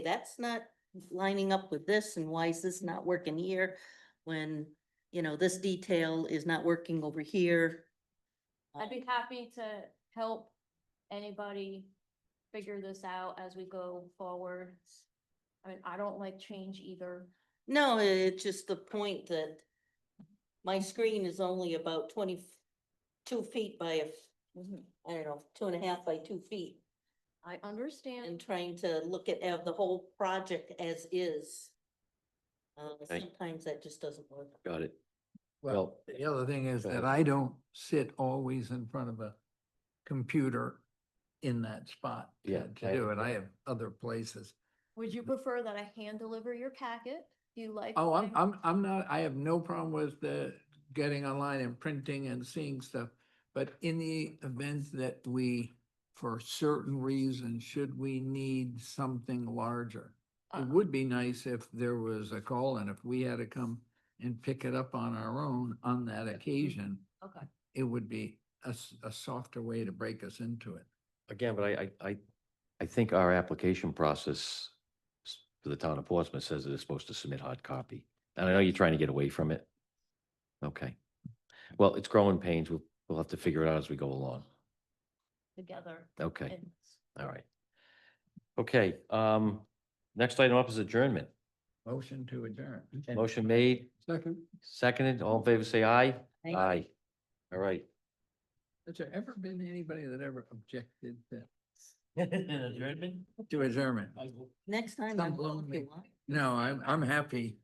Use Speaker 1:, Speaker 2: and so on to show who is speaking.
Speaker 1: that's not lining up with this and why is this not working here? When, you know, this detail is not working over here.
Speaker 2: I'd be happy to help anybody figure this out as we go forward. I mean, I don't like change either.
Speaker 1: No, it's just the point that my screen is only about twenty-two feet by, a f- I don't know, two and a half by two feet.
Speaker 2: I
Speaker 1: And
Speaker 2: understand.
Speaker 1: trying to look at, uh, the whole project as is. Uh,
Speaker 3: Okay.
Speaker 1: sometimes that just doesn't work.
Speaker 3: Got it.
Speaker 4: Well,
Speaker 3: Well,
Speaker 4: the other thing is
Speaker 3: go
Speaker 4: that
Speaker 3: ahead.
Speaker 4: I don't sit always in front of a computer in that spot. to-
Speaker 3: Yeah,
Speaker 4: To
Speaker 3: I-
Speaker 4: do it. I have other places.
Speaker 2: Would you prefer that I hand deliver your packet? Do you like?
Speaker 4: Oh, I'm,
Speaker 2: my-
Speaker 4: I'm, I'm not, I have no problem with the getting online and printing and seeing stuff. But in the event that we, for certain reason, should we need something larger?
Speaker 2: Uh,
Speaker 3: Uh-huh.
Speaker 4: It would be nice if there was a call and if we had to come and pick it up on our own on that occasion.
Speaker 2: Okay.
Speaker 4: it would be a, s- a softer way to break us into it.
Speaker 3: Again, but I, I- I, I think our application process s- for the town of Portsmouth says that it's supposed to submit hard copy. And I know you're trying to get away from it. Okay. Well, it's growing pains. We'll, we'll have to figure it out as we go along.
Speaker 2: Together.
Speaker 3: Okay,
Speaker 2: and-
Speaker 3: all right. Okay, um, next item up is adjournment.
Speaker 4: Motion to adjourn.
Speaker 3: Motion made,
Speaker 4: Second.
Speaker 3: seconded. All in favor, say aye.
Speaker 1: Aye.
Speaker 3: Uh, All right.
Speaker 4: Has there ever been anybody that ever objected to?
Speaker 5: Adjournment?
Speaker 4: To adjournment?
Speaker 1: Next time.
Speaker 4: Some
Speaker 1: I'm-
Speaker 4: blown
Speaker 1: if
Speaker 4: me.
Speaker 1: you want.
Speaker 4: No, I'm, I'm happy